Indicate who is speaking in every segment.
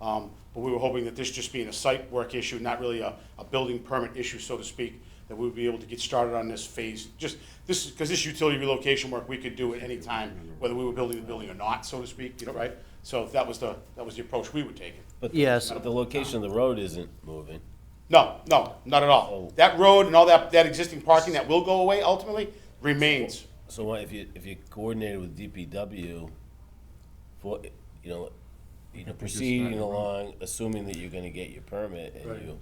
Speaker 1: Um, But we were hoping that this just being a site work issue, not really a, a building permit issue, so to speak, that we would be able to get started on this phase, just, this, because this utility relocation work, we could do at any time, whether we were building the building or not, so to speak, you know, right? So that was the, that was the approach we were taking.
Speaker 2: But
Speaker 3: Yes.
Speaker 2: But the location of the road isn't moving.
Speaker 1: No, no, not at all.
Speaker 2: Oh.
Speaker 1: That road and all that, that existing parking that will go away ultimately remains.
Speaker 2: So what if you, if you coordinated with DPW for, you know, you know, proceeding along, assuming that you're gonna get your permit and you,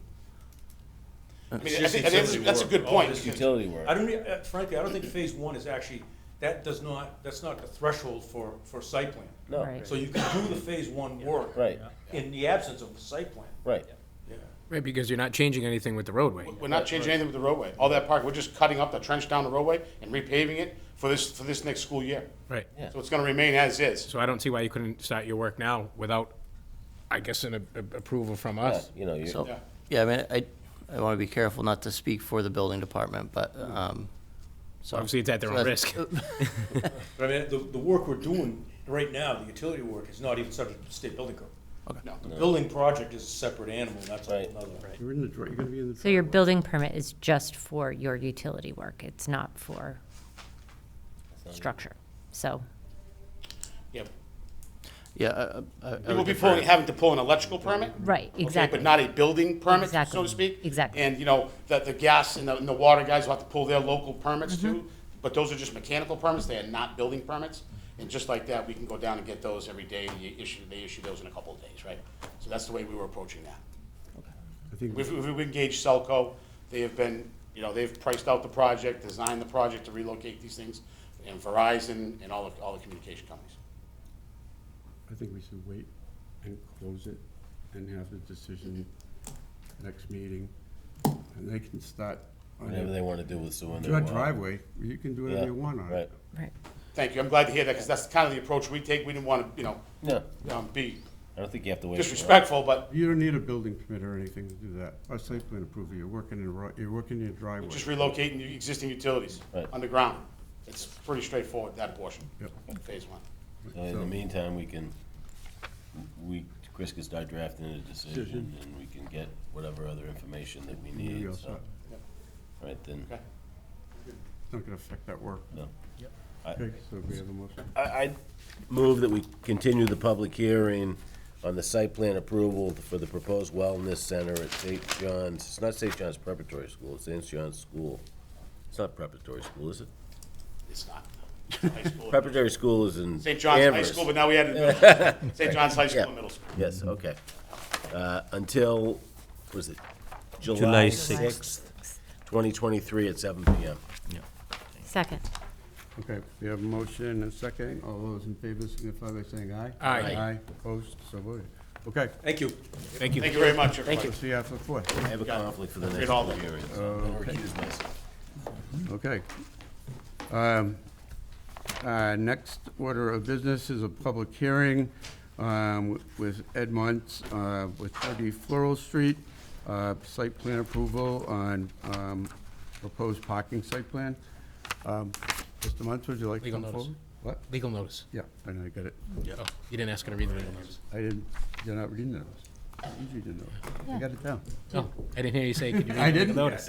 Speaker 1: I mean, I think, I think that's, that's a good
Speaker 4: All
Speaker 1: point.
Speaker 4: this
Speaker 1: because-
Speaker 2: utility work.
Speaker 4: I don't, rea- uh, frankly, I don't think phase one is actually, that does not, that's not the threshold for, for site plan.
Speaker 2: No,
Speaker 3: Right.
Speaker 4: So you can do the phase one work.
Speaker 2: Right.
Speaker 4: In the absence of a site plan.
Speaker 2: right.
Speaker 4: Yeah.
Speaker 5: Right, because you're not changing anything with the roadway.
Speaker 1: We're not changing anything with the roadway. All that park, we're just cutting up the trench down the roadway and repaving it for this, for this next school year.
Speaker 5: Right.
Speaker 2: Yeah.
Speaker 1: So it's gonna remain as is.
Speaker 5: So I don't see why you couldn't start your work now without, I guess, an a- a- approval from us.
Speaker 2: You know, you,
Speaker 3: So,
Speaker 1: Yeah.
Speaker 3: yeah, I mean, I, I want to be careful not to speak for the building department, but, um, so.
Speaker 5: Obviously, it's at their
Speaker 3: so
Speaker 5: own
Speaker 3: that's-
Speaker 5: risk.
Speaker 4: But I mean, the, the work we're doing right now, the utility work, is not even subject to state building code.
Speaker 1: No.
Speaker 4: The building project is a separate animal, that's a
Speaker 2: Right.
Speaker 4: whole nother.
Speaker 6: You're in the, dri- you're gonna be in the.
Speaker 7: So your
Speaker 6: driveway.
Speaker 7: building permit is just for your utility work, it's not for structure, so.
Speaker 1: Yeah.
Speaker 3: Yeah. I- I- I
Speaker 1: We will
Speaker 3: would
Speaker 1: be
Speaker 3: defer.
Speaker 1: pulling, having to pull an electrical permit.
Speaker 7: Right,
Speaker 1: okay,
Speaker 7: exactly.
Speaker 1: But not a building permit, so to
Speaker 7: Exactly,
Speaker 1: speak.
Speaker 7: exactly.
Speaker 1: And, you know, that the gas and the, and the water guys will have to pull their local permits
Speaker 7: Mm-hmm.
Speaker 1: too. But those are just mechanical permits, they are not building permits. And just like that, we can go down and get those every day, and you issue, they issue those in a couple of days, right? So that's the way we were approaching that.
Speaker 6: I think
Speaker 1: We've, we've engaged Selco, they have been, you know, they've priced out the project, designed the project to relocate these things, and Verizon and all the, all the communication companies.
Speaker 6: I think we should wait and close it and have the decision next meeting. And they can start on
Speaker 2: whatever
Speaker 6: your,
Speaker 2: they wanna do with sewer. and
Speaker 6: your
Speaker 2: their water.
Speaker 6: driveway, you can do
Speaker 2: Yeah,
Speaker 6: whatever you want on
Speaker 2: Right,
Speaker 6: it.
Speaker 7: Right.
Speaker 1: Thank you, I'm glad to hear that, because that's kind of the approach we take, we didn't want to, you know,
Speaker 2: no,
Speaker 1: um, be
Speaker 2: I don't think you have to wait. for that.
Speaker 1: disrespectful, but
Speaker 6: You don't need a building permit or anything to do that, or site plan approval, you're working in, ro- you're working in your driveway.
Speaker 1: just relocating the existing utilities
Speaker 2: Right.
Speaker 1: underground. It's pretty straightforward, that portion,
Speaker 6: Yep.
Speaker 1: phase one.
Speaker 2: So In the meantime, we can, we, Chris can start drafting a decision, and we can get whatever other information that we
Speaker 6: You'll be
Speaker 2: need,
Speaker 6: all
Speaker 2: so.
Speaker 6: set.
Speaker 2: Right, then,
Speaker 1: Okay.
Speaker 6: It's not gonna affect that work.
Speaker 2: no.
Speaker 6: Okay, so we have a motion.
Speaker 2: I, I move that we continue the public hearing on the site plan approval for the proposed wellness center at St. John's, it's not St. John's Preparatory School, it's St. John's School. It's not preparatory school, is it?
Speaker 1: It's not. It's a high school.
Speaker 2: Preparatory school is in
Speaker 1: St. John's High
Speaker 2: Amherst.
Speaker 1: School, but now we added middle school. St. John's High School
Speaker 2: Yeah.
Speaker 1: and middle school.
Speaker 2: Yes, okay. Uh, Until, was it
Speaker 8: July
Speaker 2: July sixth, twenty twenty-three at seven PM.
Speaker 7: Second,
Speaker 6: Okay, we have a motion and a second, all those in favor signify by saying aye.
Speaker 5: Aye.
Speaker 6: Aye, opposed, so voted. Okay,
Speaker 4: Thank you.
Speaker 5: Thank you.
Speaker 1: Thank you very much, everybody.
Speaker 6: we'll see you after four.
Speaker 2: I have a conflict for the next
Speaker 1: Read all
Speaker 2: public
Speaker 1: that.
Speaker 2: hearing, so I'm gonna recuse myself.
Speaker 6: Okay. Um, uh, Next order of business is a public hearing um, with Ed Muntz uh, with 30 Floral Street, uh, site plan approval on um, proposed parking site plan. Um, Mr. Muntz, would you like to
Speaker 5: Legal
Speaker 6: come
Speaker 5: notice.
Speaker 6: forward? What?
Speaker 5: Legal notice.
Speaker 6: Yeah, I know, I got it.
Speaker 5: Oh, You didn't ask her to read the legal notice.
Speaker 6: I didn't, you're not reading those. I usually do those. I got it down.
Speaker 5: Oh, I didn't hear you say, could you
Speaker 6: I
Speaker 5: read the legal
Speaker 6: didn't.
Speaker 5: notice?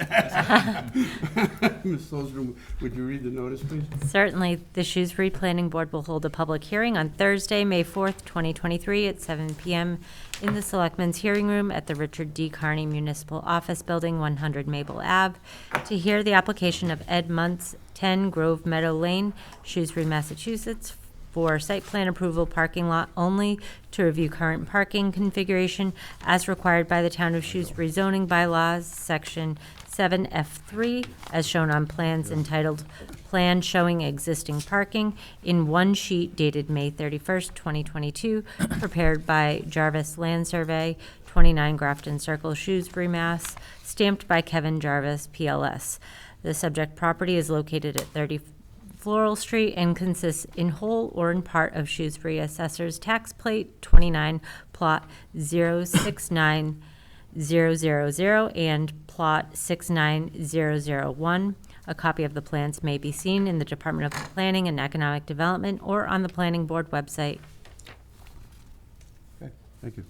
Speaker 6: Ms. Solzner, would you read the notice, please?
Speaker 7: certainly, the Shrewsbury Planning Board will hold a public hearing on Thursday, May 4th, 2023, at 7 PM in the Selectmen's Hearing Room at the Richard D. Carney Municipal Office Building, 100 Maple Ave, to hear the application of Ed Muntz, 10 Grove Meadow Lane, Shrewsbury, Massachusetts, for site plan approval parking lot only to review current parking configuration as required by the Town of Shrewsbury zoning bylaws, section seven F three, as shown on plans entitled Plan Showing Existing Parking in one sheet dated May thirty-first, twenty twenty-two, prepared by Jarvis Land Survey, twenty-nine Grafton Circle, Shrewsbury, Mass, stamped by Kevin Jarvis, PLS. The subject property is located at thirty Floral Street and consists in whole or in part of Shrewsbury Assessor's Tax Plate 29, Plot 069000 and Plot 69001. A copy of the plans may be seen in the Department of Planning and Economic Development or on the Planning Board website.
Speaker 6: Okay, thank you.